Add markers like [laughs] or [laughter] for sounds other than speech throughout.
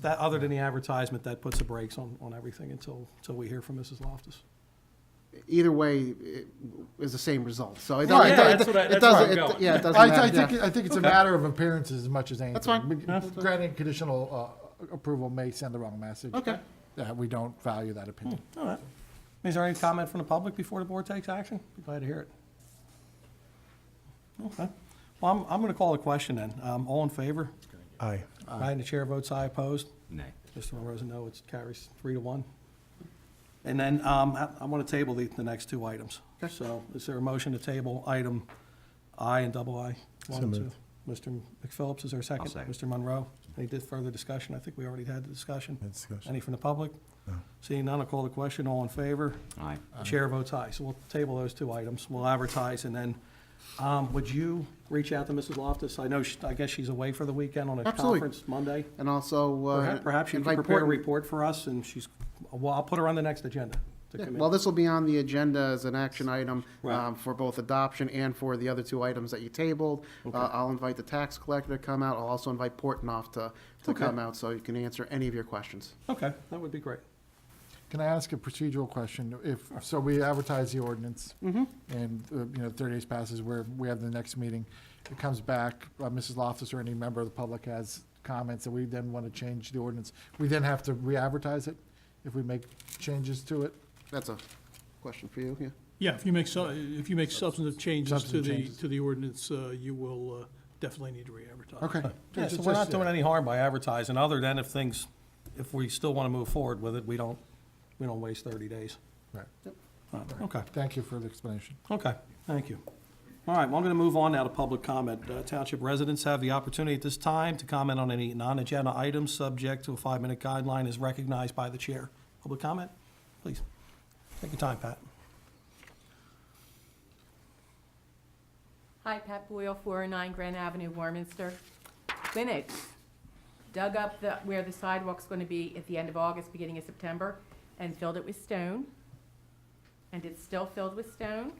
that, other than the advertisement, that puts the brakes on, on everything until, until we hear from Mrs. Loftus. Either way, it is the same result, so. it- Yeah, it- it- that's it what I- that's where doesn't- I'm it- going. Yeah, it doesn't I, I matter, think, yeah. I think it's a matter of appearances as much as anything. fine. But Granting conditional uh, approval may send the wrong message. Okay. That we don't value that opinion. All right. Is there any comment from the public before the board takes action? Be glad to hear it. Okay. Well, I'm, I'm going to call the question then. Um, All in favor? Aye. Aye, and the chair votes aye opposed. Nay. Mr. Monroe's a no, it carries three to one. And then um, I I want to table the, the next two items. So is there a motion to table item I and double I? one and So two? Mr. McPhillips, is there a 2nd second. Mr. Monroe, any di- further discussion? I think we already had the discussion. Had discussion. Any from the public? No. Seeing none, I'll call the question. All in favor? Aye. The Chair votes aye. So we'll table those two items. We'll advertise and then, um, would you reach out to Mrs. Loftus? I know, she- I guess she's away for the weekend on a Absolutely. conference Monday. And also. uh, Perhaps- Perhaps you can invite prepare a Portland- report for us, and she's, well, I'll put her on the next agenda to Yeah, come in. Well, this will be on the agenda as an action item Right. um, for both adoption and for the other two items that you tabled. Uh, I'll invite the tax collector to come out. I'll also invite Portnoff to, to Okay. come out so you can answer any of your questions. Okay, that would be great. Can I ask a procedural question? If, so we advertise the ordinance. Mm-hmm. And, uh, you know, thirty days passes where we have the next meeting. It comes back, uh, Mrs. Loftus or any member of the public has comments and we then want to change the ordinance. We then have to re-advertise it if we make changes to it. That's a question for you, yeah? Yeah, if you make, su- if you make substantive changes to Substantive the, changes. to the ordinance, uh, you will uh, definitely need to re-advertise. Okay. Yeah, so Just- we're not just- doing any harm by advertising, other than if things, if we still want to move forward with it, we don't, we don't waste 30 days. Right. Uh, Okay, Thank you for the explanation. okay, thank you. All right, well, I'm going to move on now to public comment. Uh, Township residents have the opportunity at this time to comment on any non-agenda items subject to a five-minute guideline as recognized by the chair. Public comment, please. Take your time, Pat. Hi, Pat Boyle, 409 Grand Avenue, Warminster. Linux dug up the, where the sidewalk's going to be at the end of August, beginning of September, and filled it with stone. And it's still filled with stone.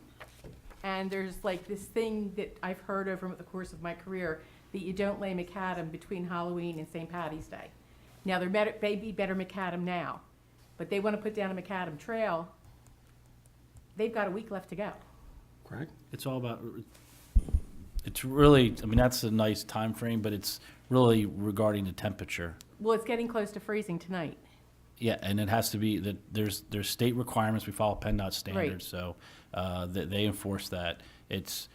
And there's like this thing that I've heard over the course of my career, that you don't lay macadam between Halloween and St. Patty's Day. Now, there better- may be better macadam now, but they want to put down a macadam trail. They've got a week left to go. Craig? It's all about, it's really, I mean, that's a nice time frame, but it's really regarding the temperature. Well, it's getting close to freezing tonight. Yeah, and it has to be that there's, there's state requirements, we follow PennDOT standards, so, uh, that they enforce that. It's,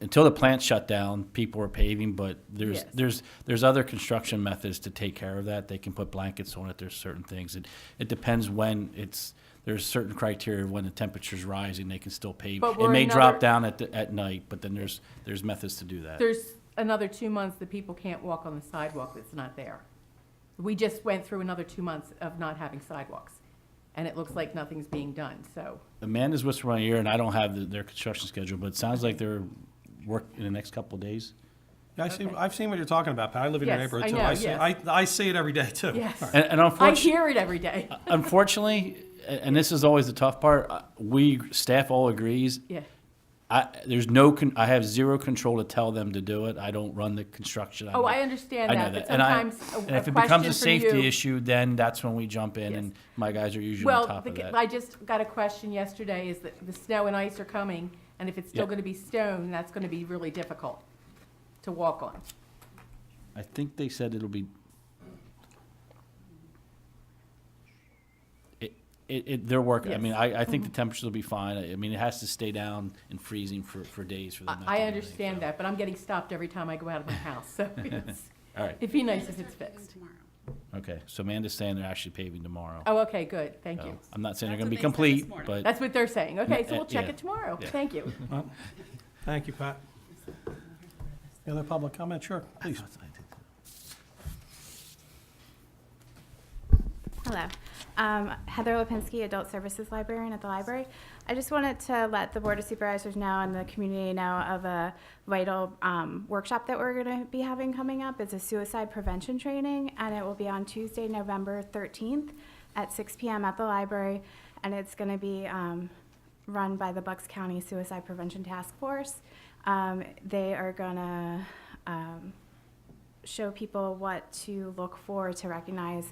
until the plant shut down, people are paving, but there's, Yes. there's, there's other construction methods to take care of that. They can put blankets on it, there's certain things. It, it depends when it's, there's certain criteria when the temperature's rising, they can still pave. But It may we're drop another- down at, the- at night, but then there's, there's methods to do that. There's another two months that people can't walk on the sidewalk that's not there. We just went through another two months of not having sidewalks, and it looks like nothing's being done, so. Amanda's whispering in my ear, and I don't have the- their construction schedule, but it sounds like they're work in the next couple of days. Yeah, I see, Okay. I've seen what you're talking about, Pat. I live in your Yes, neighborhood I too. know, see, yes. I, I see it every day too. Yes. And, Uh, and I unfortunately, hear it every day. unfortunately, a- and this is always the tough part, uh, we, staff all agrees, Yeah, I, there's no, con- I have zero control to tell them to do it. I don't run the construction. Oh, don't- I understand I know that, but and I- sometimes a- and a if it becomes question a for safety you- issue, then that's when we jump in, Yes. and my guys are usually on well, top the of g- that. I just got a question yesterday, is that the snow and ice are coming, and if it's still Yeah. gonna be stone, that's gonna be really difficult to walk on. I think they said it'll be. It, it, it- they're working, I mean, Yes. Mm-hmm. I, I think the temperatures will be fine, I I mean, it has to stay down and freezing for, for days for them. not to I, I do anything, so. understand that, but I'm getting stopped every time I go out of my house, [laughs] so it's, All right, it'd be nice if it's fixed. okay, so Amanda's saying they're actually paving tomorrow. Oh, okay, good, thank So, you. I'm not saying they're That's gonna be what they said complete, this morning. but, That's what they're saying. Okay, so uh, we'll check yeah. it tomorrow. Yeah. Thank you. Thank you, Pat. Any other public comment? Sure, please. Hello. Um, Heather Lipinski, Adult Services Librarian at the library. I just wanted to let the Board of Supervisors know and the community know of a vital um, workshop that we're going to be having coming up. It's a suicide prevention training, and it will be on Tuesday, November 13th at 6 p.m. at the library, and it's going to be um, run by the Bucks County Suicide Prevention Task Force. Um, They are going to show people what to look for to recognize